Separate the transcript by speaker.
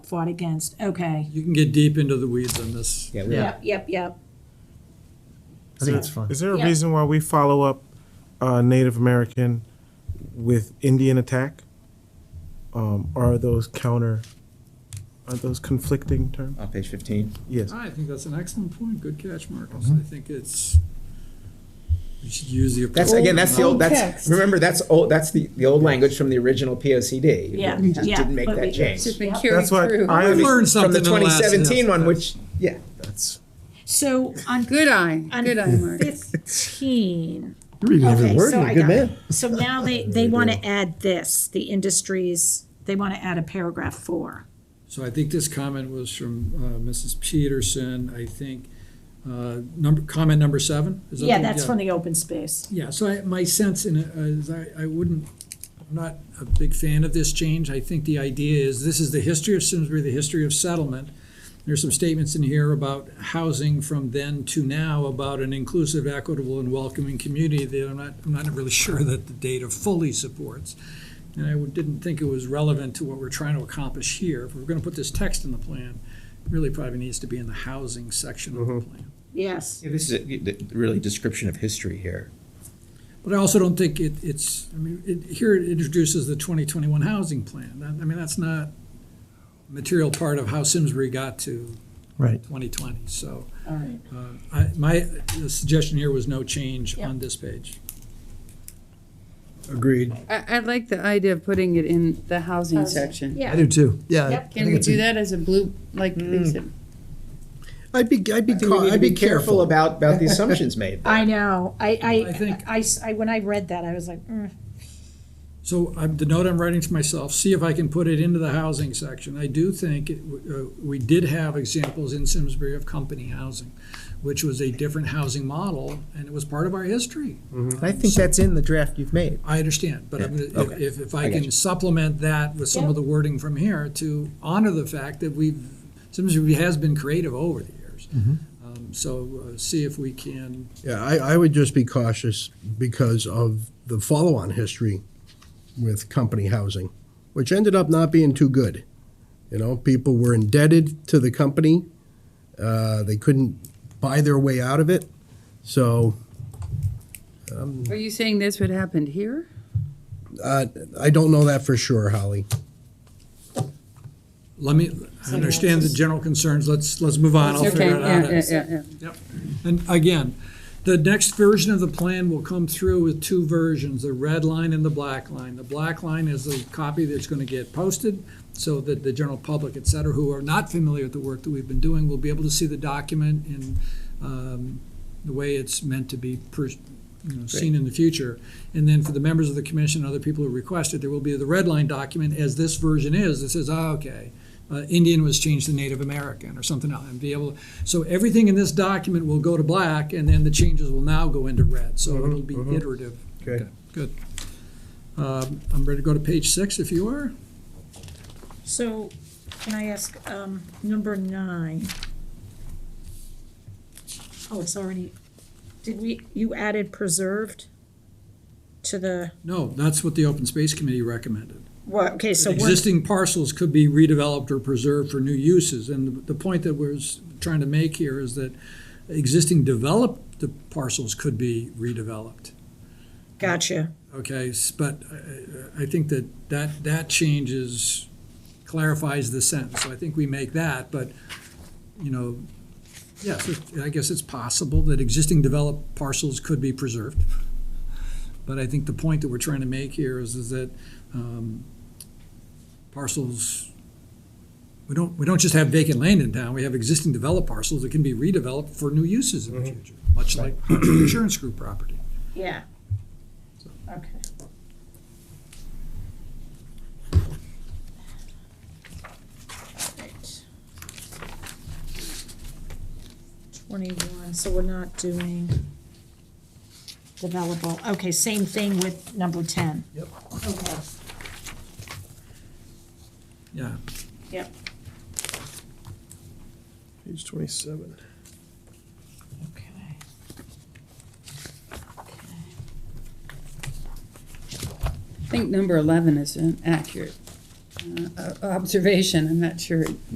Speaker 1: fought against, okay.
Speaker 2: You can get deep into the weeds on this.
Speaker 3: Yeah, we
Speaker 4: Yeah.
Speaker 1: Yep, yep, yep.
Speaker 3: I think it's fun.
Speaker 5: Is there a
Speaker 1: Yeah.
Speaker 5: reason why we follow up uh, Native American with Indian attack? Um, are those counter? Are those conflicting terms?
Speaker 3: On page fifteen,
Speaker 5: Yes.
Speaker 2: I think that's an excellent point. Good catch, Marcus.
Speaker 3: Mm-hmm.
Speaker 2: I think it's, we should use the.
Speaker 3: that's again, that's the old,
Speaker 1: Old
Speaker 3: that's,
Speaker 1: text.
Speaker 3: remember, that's old, that's the, the old language from the original P O C D.
Speaker 1: Yeah,
Speaker 3: We just
Speaker 1: yeah,
Speaker 3: didn't make
Speaker 1: but we-
Speaker 3: that change.
Speaker 4: Just been carried
Speaker 5: That's what
Speaker 4: through.
Speaker 5: I
Speaker 3: I mean,
Speaker 2: Learned
Speaker 3: From
Speaker 2: something
Speaker 3: the
Speaker 2: in the last-
Speaker 3: twenty seventeen one,
Speaker 2: yes,
Speaker 3: which, yeah, that's,
Speaker 1: So on
Speaker 4: Good eye,
Speaker 1: On
Speaker 4: good eye, Mark.
Speaker 1: 15.
Speaker 6: You're reading every
Speaker 1: Okay,
Speaker 6: word.
Speaker 1: so
Speaker 6: You're
Speaker 1: I
Speaker 6: a good
Speaker 1: got
Speaker 6: man.
Speaker 1: So now they, they want to add this, the industries, they want to add a paragraph four.
Speaker 2: So I think this comment was from uh, Mrs. Peterson, I think, uh, number, comment number seven? Is that
Speaker 1: Yeah,
Speaker 2: the-
Speaker 1: that's from the open space.
Speaker 2: Yeah, so I, my sense in it is I, I wouldn't, I'm not a big fan of this change. I think the idea is this is the history of Simsbury, the history of settlement. There's some statements in here about housing from then to now about an inclusive, equitable, and welcoming community that I'm not, I'm not really sure that the data fully supports. And I would- didn't think it was relevant to what we're trying to accomplish here. If we're gonna put this text in the plan, it really probably needs to be in the housing section of the plan.
Speaker 1: Yes.
Speaker 3: this is a- the- really description of history here.
Speaker 2: But I also don't think it, it's, I mean, it, here it introduces the twenty twenty-one housing plan. That- I mean, that's not a material part of how Simsbury got to
Speaker 6: Right.
Speaker 2: twenty twenty, so.
Speaker 1: All right.
Speaker 2: uh, I, my suggestion here was no change
Speaker 1: Yeah.
Speaker 2: on this page.
Speaker 6: Agreed.
Speaker 4: I, I like the idea of putting it in the housing
Speaker 1: Housing,
Speaker 4: section.
Speaker 1: yeah.
Speaker 6: I do too. Yeah. I
Speaker 1: Yep.
Speaker 6: think
Speaker 4: Can we
Speaker 6: it's a-
Speaker 4: do that as a blue, like, is it-
Speaker 6: I'd be, I'd be,
Speaker 3: I think we
Speaker 6: cau-
Speaker 3: need to
Speaker 6: I'd
Speaker 3: be careful about,
Speaker 6: about.
Speaker 3: about the assumptions made.
Speaker 1: I know. I,
Speaker 2: I think-
Speaker 1: I, I s- I- when I read that, I was like, mm.
Speaker 2: So I'm, the note I'm writing to myself, see if I can put it into the housing section. I do think, it- uh, we did have examples in Simsbury of company housing, which was a different housing model, and it was part of our history.
Speaker 6: I think that's in the draft you've made.
Speaker 2: I understand, but I'm
Speaker 3: Yeah,
Speaker 2: gonna-
Speaker 3: okay.
Speaker 2: if, if- if I
Speaker 3: I got
Speaker 2: can
Speaker 3: you.
Speaker 2: supplement that with some
Speaker 1: Yeah.
Speaker 2: of the wording from here to honor the fact that we've, Simsbury has been creative over the years.
Speaker 3: Mm-hmm.
Speaker 2: Um, So uh, see if we can,
Speaker 6: Yeah, I, I would just be cautious because of the follow-on history with company housing, which ended up not being too good. You know, people were indebted to the company. Uh, they couldn't buy their way out of it. So
Speaker 4: are you saying this would happen here?
Speaker 6: uh, I don't know that for sure, Holly.
Speaker 2: let me, I understand the general concerns, let's, let's move on, I'll
Speaker 4: Okay,
Speaker 2: figure it
Speaker 4: yeah, yeah,
Speaker 2: out.
Speaker 4: yeah, yeah.
Speaker 2: And again, the next version of the plan will come through with two versions, the red line and the black line. The black line is the copy that's gonna get posted, so that the general public, et cetera, who are not familiar with the work that we've been doing, will be able to see the document in um, the way it's meant to be per, you know, seen in the future. And then for the members of the commission, and other people who request it, there will be the red line document as this version is, that says, ah, okay, uh, Indian was changed to Native American or something else, and be able, so everything in this document will go to black, and then the changes will now go into red, so it'll be iterative.
Speaker 6: Okay.
Speaker 2: Good. Um, I'm ready to go to page six, if you are.
Speaker 1: so can I ask, um, number nine? Oh, it's already, did we, you added preserved to the,
Speaker 2: No, that's what the Open Space Committee recommended.
Speaker 1: what, okay, so we're,
Speaker 2: Existing parcels could be redeveloped or preserved for new uses, and the- the point that we're s- trying to make here is that existing developed parcels could be redeveloped,
Speaker 1: gotcha.
Speaker 2: okay? S- But uh, I- I I think that that, that changes, clarifies the sentence, so I think we make that, but, you know, yes, it- I guess it's possible that existing developed parcels could be preserved. But I think the point that we're trying to make here is, is that um, parcels, we don't, we don't just have vacant land in town, we have existing developed parcels that can be redeveloped for new uses in the
Speaker 6: Mm-hmm.
Speaker 2: future, much like insurance group property.
Speaker 1: Yeah. Okay. Right. Twenty-one, so we're not doing developable, okay, same thing with number ten. Yep. Okay,
Speaker 2: Yeah,
Speaker 1: yep,
Speaker 6: Page twenty-seven.
Speaker 1: okay.
Speaker 4: I think number eleven is inaccurate. uh, observation, I'm not sure